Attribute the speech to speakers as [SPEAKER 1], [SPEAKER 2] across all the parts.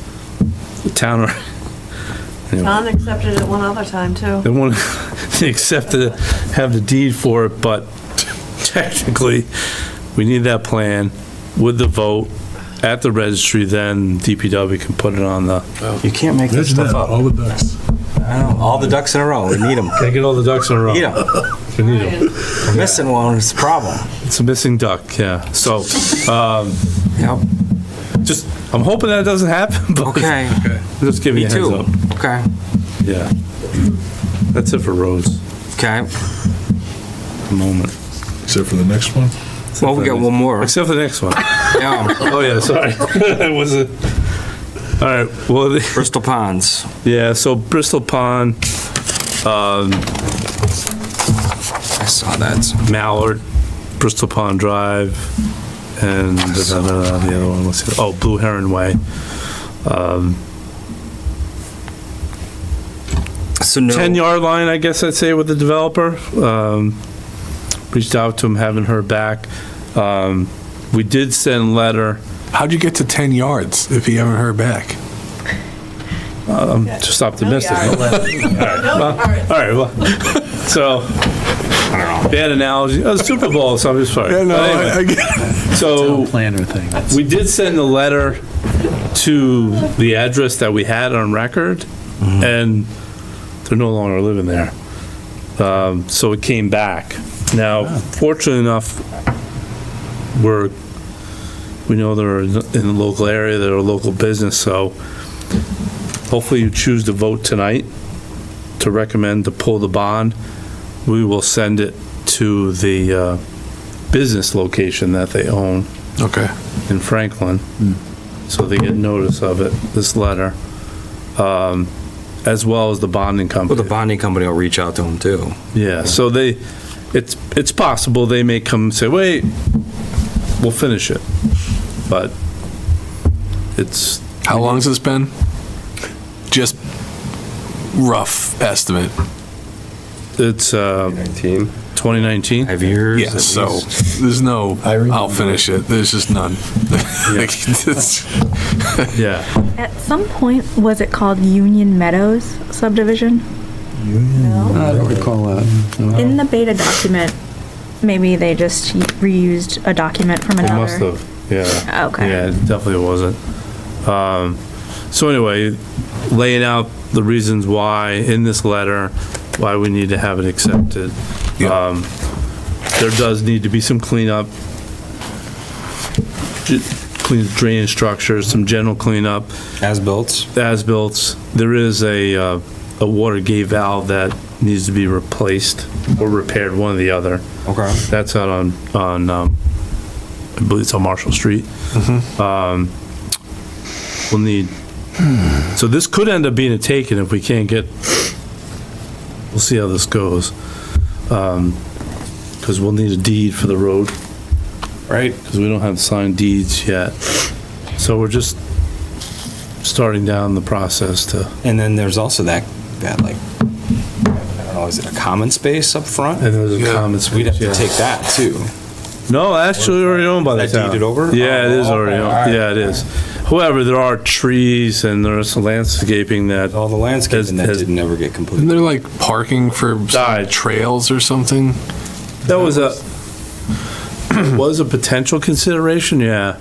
[SPEAKER 1] town,
[SPEAKER 2] John accepted it one other time, too.
[SPEAKER 1] they want, they accept to have the deed for it, but technically, we need that plan with the vote at the registry, then DPW can put it on the.
[SPEAKER 3] You can't make this
[SPEAKER 4] Imagine
[SPEAKER 3] stuff
[SPEAKER 4] that,
[SPEAKER 3] up.
[SPEAKER 4] all the ducks.
[SPEAKER 3] I know, All the ducks in a row, we need them.
[SPEAKER 1] Gotta get all the ducks in a row.
[SPEAKER 3] Need them.
[SPEAKER 1] We need 'em.
[SPEAKER 3] We're Missing one is a problem.
[SPEAKER 1] It's a missing duck, yeah. So,
[SPEAKER 3] Yep,
[SPEAKER 1] just, I'm hoping that doesn't happen, but.
[SPEAKER 3] Okay.
[SPEAKER 1] Just give you
[SPEAKER 3] me
[SPEAKER 1] a heads
[SPEAKER 3] too.
[SPEAKER 1] up.
[SPEAKER 3] Okay,
[SPEAKER 1] Yeah. That's it for roads,
[SPEAKER 3] okay.
[SPEAKER 1] at the moment.
[SPEAKER 4] Except for the next one.
[SPEAKER 3] Well, we got one more.
[SPEAKER 1] Except for the next one.
[SPEAKER 3] Yeah,
[SPEAKER 1] Oh, yeah, sorry. It was a, all right, well, the-
[SPEAKER 3] Bristol Ponds.
[SPEAKER 1] yeah, so Bristol Pond, um,
[SPEAKER 3] I saw that.
[SPEAKER 1] Mallard, Bristol Pond Drive, and da- da- da- da, the other one, let's see, oh, Blue Heron Way.
[SPEAKER 3] So no.
[SPEAKER 1] 10-yard line, I guess I'd say, with the developer. Um, Reached out to him, haven't heard back. Um, We did send letter,
[SPEAKER 4] How'd you get to 10 yards if he haven't heard back?
[SPEAKER 1] just optimistic.
[SPEAKER 2] No
[SPEAKER 1] All right, well, so, bad analogy, oh, Super Bowl, so I'm just sorry.
[SPEAKER 4] Yeah, no,
[SPEAKER 1] But anyway,
[SPEAKER 4] I- I get-
[SPEAKER 1] So,
[SPEAKER 5] planner thing.
[SPEAKER 1] we did send a letter to the address that we had on record,
[SPEAKER 5] Mm-hmm.
[SPEAKER 1] and they're no longer living there. Um, So it came back. Now,
[SPEAKER 5] Ah.
[SPEAKER 1] fortunately enough, we're, we know they're in the local area, they're a local business, so hopefully you choose to vote tonight to recommend to pull the bond. We will send it to the uh, business location that they own
[SPEAKER 4] Okay.
[SPEAKER 1] in Franklin, so they get notice of it, this letter, um, as well as Oh, the bonding
[SPEAKER 3] Well, the
[SPEAKER 1] company.
[SPEAKER 3] bonding company will reach out to them too.
[SPEAKER 1] Yeah, so they, it's, it's possible they may come and say, wait, we'll finish it, but it's,
[SPEAKER 4] How long's this been? Just rough estimate.
[SPEAKER 1] it's, uh, 2019?
[SPEAKER 3] Have yours?
[SPEAKER 4] Yeah, so there's no, I'll finish it. There's just none. Like, it's-
[SPEAKER 1] Yeah,
[SPEAKER 6] At some point, was it called Union Meadows subdivision?
[SPEAKER 5] I don't recall that. no.
[SPEAKER 6] In the beta document, maybe they just reused a document from
[SPEAKER 1] it
[SPEAKER 6] another. Oh,
[SPEAKER 1] must have, yeah.
[SPEAKER 6] Okay.
[SPEAKER 1] Yeah, it definitely wasn't. Um, So anyway, laying out the reasons why in this letter, why we need to have it accepted.
[SPEAKER 4] Yeah.
[SPEAKER 1] Um, There does need to be some cleanup, ju- clean drainage structures, some general cleanup,
[SPEAKER 3] As built.
[SPEAKER 1] as-built. There is a, uh, a water gate valve that needs to be replaced or repaired, one or the other.
[SPEAKER 3] Okay.
[SPEAKER 1] That's out on, on, um, I believe it's on Marshall Street. Um, We'll need, so this could end up being a taken if we can't get, we'll see how this goes. Because we'll need a deed for the road. Right. Because we don't have signed deeds yet. So we're just starting down the process to,
[SPEAKER 3] And then there's also that, that like, I don't know, is it a common space up front?
[SPEAKER 1] and there's a
[SPEAKER 4] Yeah.
[SPEAKER 1] comments.
[SPEAKER 3] We'd have to
[SPEAKER 1] yeah.
[SPEAKER 3] take that too.
[SPEAKER 1] No, actually already owned by the
[SPEAKER 3] That
[SPEAKER 1] town.
[SPEAKER 3] deeded over?
[SPEAKER 1] Yeah, it is
[SPEAKER 3] Oh,
[SPEAKER 1] already
[SPEAKER 3] okay,
[SPEAKER 1] owned,
[SPEAKER 3] alright,
[SPEAKER 1] yeah, it is. However, there are trees and there's some landscaping that,
[SPEAKER 3] All the
[SPEAKER 1] Has-
[SPEAKER 3] landscaping that
[SPEAKER 1] has-
[SPEAKER 3] didn't ever get
[SPEAKER 4] Isn't
[SPEAKER 3] completed.
[SPEAKER 4] there like parking for some
[SPEAKER 1] Died.
[SPEAKER 4] trails or something?
[SPEAKER 1] that was a, was a potential consideration, yeah.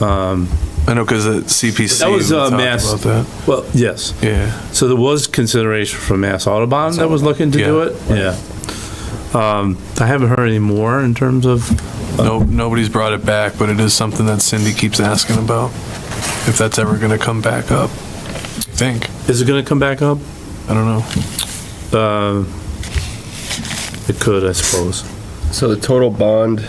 [SPEAKER 1] Um,
[SPEAKER 4] I know because at CPC.
[SPEAKER 1] That was,
[SPEAKER 4] we
[SPEAKER 1] uh,
[SPEAKER 4] talked
[SPEAKER 1] Mass-
[SPEAKER 4] about that.
[SPEAKER 1] Well, yes,
[SPEAKER 4] Yeah.
[SPEAKER 1] so there was consideration from Mass Audubon that was looking to do it, yeah. Um, I haven't heard any more in terms of,
[SPEAKER 4] No, nobody's brought it back, but it is something that Cindy keeps asking about. If that's ever going to come back up, I think.
[SPEAKER 1] is it gonna come back up?
[SPEAKER 4] I don't know.
[SPEAKER 1] Uh, It could, I suppose.
[SPEAKER 7] So the total bond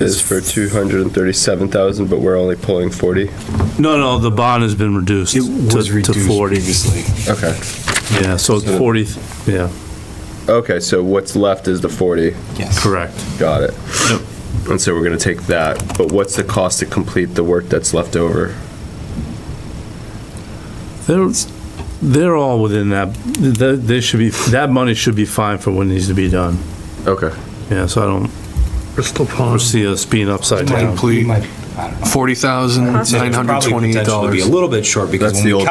[SPEAKER 7] is for 237,000, but we're only pulling 40?
[SPEAKER 1] No, no, the bond has been reduced
[SPEAKER 3] It
[SPEAKER 1] to
[SPEAKER 3] was
[SPEAKER 1] to
[SPEAKER 3] reduced
[SPEAKER 1] 40,
[SPEAKER 3] previously.
[SPEAKER 7] Okay.
[SPEAKER 1] yeah, so it's 40, yeah.
[SPEAKER 7] Okay, so what's left is the 40.
[SPEAKER 3] Yes.
[SPEAKER 1] Correct.
[SPEAKER 7] Got it. And so we're going to take that, but what's the cost to complete the work that's left over?
[SPEAKER 1] They're, they're all within that, they, they should be, that money should be fine for what needs to be done.
[SPEAKER 7] Okay.
[SPEAKER 1] Yeah, so I don't
[SPEAKER 4] Bristol Pond.
[SPEAKER 1] foresee us being upside down.
[SPEAKER 4] Complete
[SPEAKER 3] We might- I don't know.
[SPEAKER 4] forty thousand nine hundred
[SPEAKER 3] Probably
[SPEAKER 4] twenty-eight
[SPEAKER 3] potentially
[SPEAKER 4] dollars.
[SPEAKER 3] Be a little bit short because
[SPEAKER 7] That's
[SPEAKER 3] when
[SPEAKER 7] the
[SPEAKER 3] we
[SPEAKER 7] old